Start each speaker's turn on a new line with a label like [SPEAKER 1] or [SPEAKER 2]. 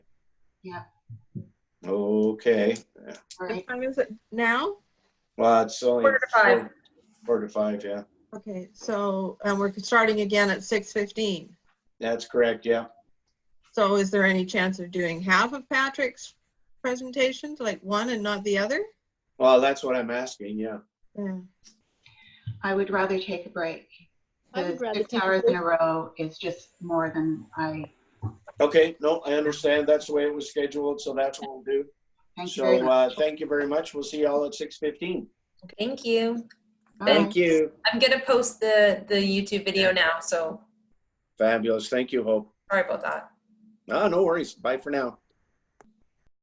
[SPEAKER 1] Yeah.
[SPEAKER 2] Okay,
[SPEAKER 1] Right,
[SPEAKER 3] What time is it now?
[SPEAKER 2] well, it's only.
[SPEAKER 4] Quarter to five.
[SPEAKER 2] four- Quarter to five, yeah.
[SPEAKER 3] Okay, so, and we're starting again at six fifteen.
[SPEAKER 2] That's correct, yeah.
[SPEAKER 3] So is there any chance of doing half of Patrick's presentations, like one and not the other?
[SPEAKER 2] Well, that's what I'm asking, yeah.
[SPEAKER 3] Yeah.
[SPEAKER 1] I would rather take a break.
[SPEAKER 5] I would
[SPEAKER 1] The
[SPEAKER 5] rather
[SPEAKER 1] Six
[SPEAKER 5] take a
[SPEAKER 1] hours in a row is just more than I,
[SPEAKER 2] Okay, no, I understand. That's the way it was scheduled, so that's what we'll do.
[SPEAKER 1] thank you
[SPEAKER 2] So,
[SPEAKER 1] very
[SPEAKER 2] uh,
[SPEAKER 1] much.
[SPEAKER 2] thank you very much. We'll see you all at six fifteen.
[SPEAKER 4] Thank you.
[SPEAKER 1] Bye.
[SPEAKER 2] uh,
[SPEAKER 4] Thank
[SPEAKER 2] you.
[SPEAKER 4] I'm gonna post the, the YouTube video now, so
[SPEAKER 2] Fabulous. Thank you, Hope. Ah,
[SPEAKER 4] sorry about that.
[SPEAKER 2] No, no worries. Bye for now.